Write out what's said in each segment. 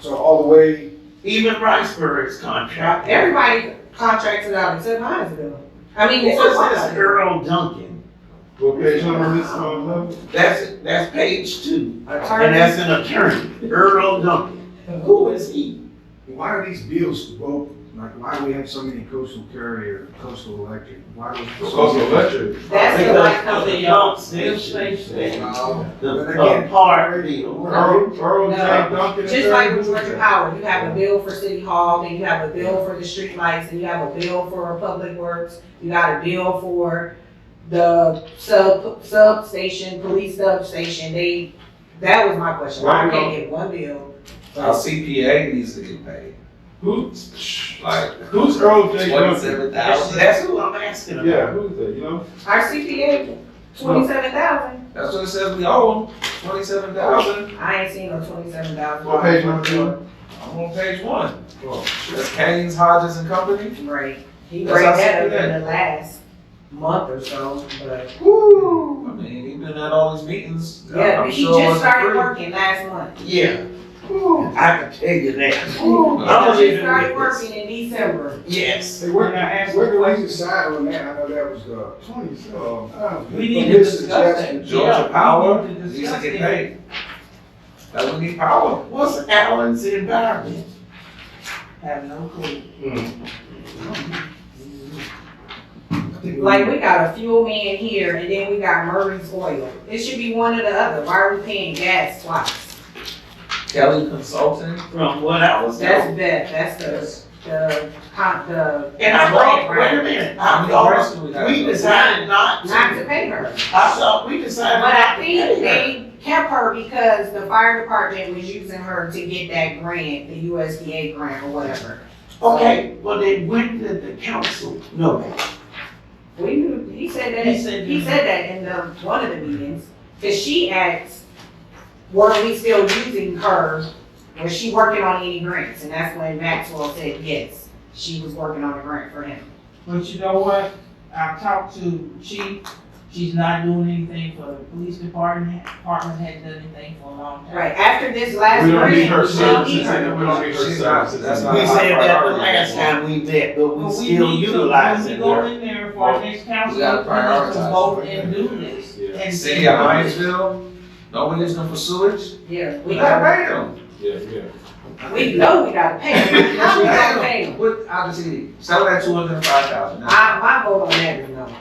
So all the way, Even Riceburg's contract. Everybody contracted out except mine's bill. I mean, Who it's was just this Earl Duncan? what page number is this on level? That's, that's page two, and attorney. that's an attorney, Earl Duncan. Who is he? Why are these bills broke? Like, why do we have so many coastal carrier, coastal electric? Why do we? Because of electric. That's the light Because of company. the pump station, No, the, But the again- part deal. Earl, Earl J. No. Duncan. Just like with Georgia Power, you have a bill for City Hall, then you have a bill for the streetlights, and you have a bill for Public Works, you got a bill for the sub, substation, police substation, they, that was my question, why I can't get one bill? Our CPA needs to get paid. Who, Like who's Earl J. Duncan? twenty-seven That's, thousand. that's who I'm asking about. Yeah, who's that, you know? Our CPA, twenty-seven thousand, That's what it says we owe them. Twenty-seven thousand. I ain't seen no twenty-seven thousand. What page number two? I'm on page one. Oh. That's Kane's, Hodges and Company. Right, he That's bring our that up CPA. in the last month or so, but, I woo, mean, he been at all these meetings. I- yeah, I'm he sure just it wasn't started free. working last month. Yeah, I can tell you that. Because leaving Oh, it started with working in December. Yes. Hey, where, where do we decide on that? I know that was the twenty, uh. We need to discuss that. Yeah, Georgia Power we need to needs to discuss get that. paid. That we need power. What's Allen's environment? Have no clue. Like, Like we got a fuel man here and then we got Murray's Oil. It should be one or the other. Why are we paying gas twice? Kelly Consulting. From what I was That's told. the, that's the, the, con- the. And I thought, wait a minute, I thought we decided not Not to. to pay her. I thought we decided But not I to think pay her. they kept her because the fire department was using her to get that grant, the USDA grant or whatever. Okay, well then when did the council know that? We knew, he said that, He said- he said that in the, one of the meetings, cause she asked, were we still using her? Was she working on any grants? And that's when Maxwell said, yes, she was working on a grant for him. But you know what? I talked to chief, she's not doing anything for the police department, department hadn't done anything for a long time. Right, after this last We don't grant, need her we don't services, need her. and we don't need her She's not- services. that's not We a high said that the priority. last time we met, but But we we still need to- utilizing When we her. go in there for our next council, We we gotta need to prioritize. "Oh, vote and do this. And City of Hinesville, no one is gonna pursue it. Yeah, we We gotta know, pay them. Yeah, yeah. we know we gotta pay her, how we gotta pay her? What, I just see, sell that two hundred and five thousand. I, I, my vote on that is no.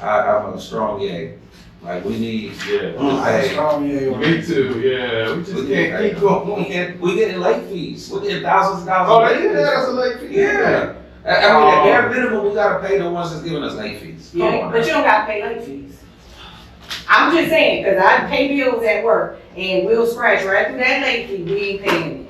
I'm a strong yay. Like, we need, Yeah. I- Me too, yeah, we just we can't keep can't We going. get, we getting late fees, we getting thousands and Oh, thousands. they of did late that as fees. a late fee? Yeah, I, I mean, at Oh. bare minimum, we gotta pay the ones that's giving us late fees. Come Yeah, on but now. you don't gotta pay late fees. I'm just saying, cause I pay bills at work and we'll scratch right through that late fee, we ain't paying it.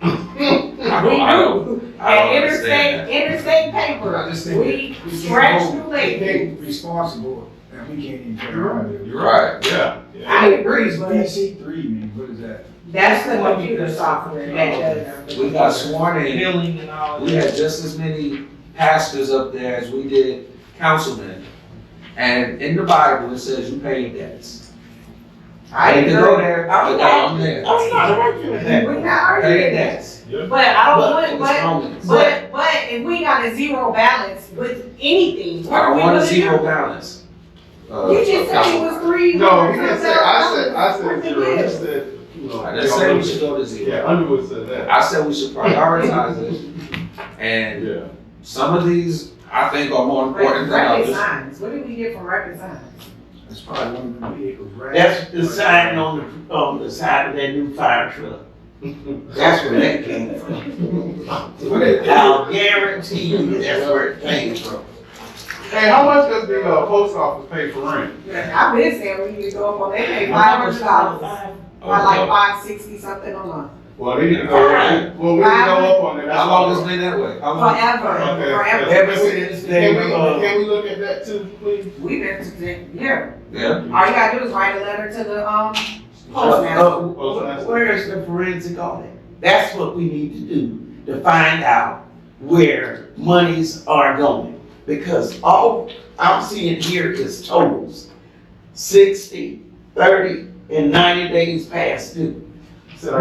I don't, I don't, I And don't understand interstate, that. interstate But I paper, just think that we we can't scratch through hold, we late fees. can't responsible, and we can't even. pay You're our right, bills. you're right. Right, Yeah, yeah. I agree, What but does DC three mean? What is that? that's the computer software that does. we got sworn in. Billing and all We that. had just as many pastors up there as we did councilmen. And in the Bible, it says you pay debts. I didn't go there, I was down there. I'm not arguing with that. We're not Pay arguing that, debts. but I don't But want, it's but, wrong. but, but if we got a zero balance with anything, I what are don't we want a gonna zero do? balance. Uh, You just said it was three. No, he hundred didn't say, I said, I thousand said dollars. zero, he said, you know. I didn't say we should go to Yeah, zero. Underwood said that, I said we should prioritize it. And yeah. some of these, I think are more Record important than others. signs, what did we get from record signs? It's probably one of the vehicles, right? That's the sign on the, on the side of that new fire truck. That's where that came from. I'll guarantee you that's where it came from. Hey, how much does the, uh, post office pay for rent? I've been saying we need to go up on, they pay five hundred dollars, Oh, or like no. five sixty something a month. Well, they need to go, well, we need to go up on that. How long has it been that way? How long? Forever, Okay, forever, okay. Ever since they, Can we, uh, can we look at that too, please? we've been, to the- yeah, Yeah. all you gotta do is write a letter to the, um, postmaster. Uh, wh- Where is the forensic audit? That's what we need to do, to find out where monies are going. Because all I'm seeing here is totals, sixty, thirty, and ninety days past due.